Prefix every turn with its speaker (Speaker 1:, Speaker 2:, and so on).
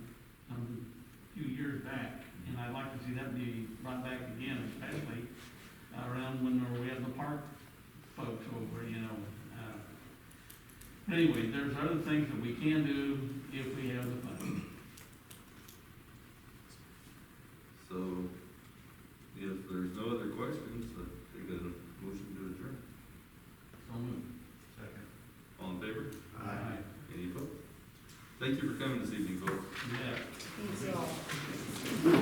Speaker 1: um, back, and I'd like to see that be brought back again, especially around when we have the park folks over, you know. uh, But anyway, there's other things that we can do if we have the funds.
Speaker 2: So, if there's no other questions, I take a motion to adjourn.
Speaker 1: So moved.
Speaker 3: Second.
Speaker 2: All in favor?
Speaker 1: Aye.
Speaker 2: Any opposed? Thank you for coming this evening, folks.
Speaker 1: Yeah.
Speaker 4: Thank you all.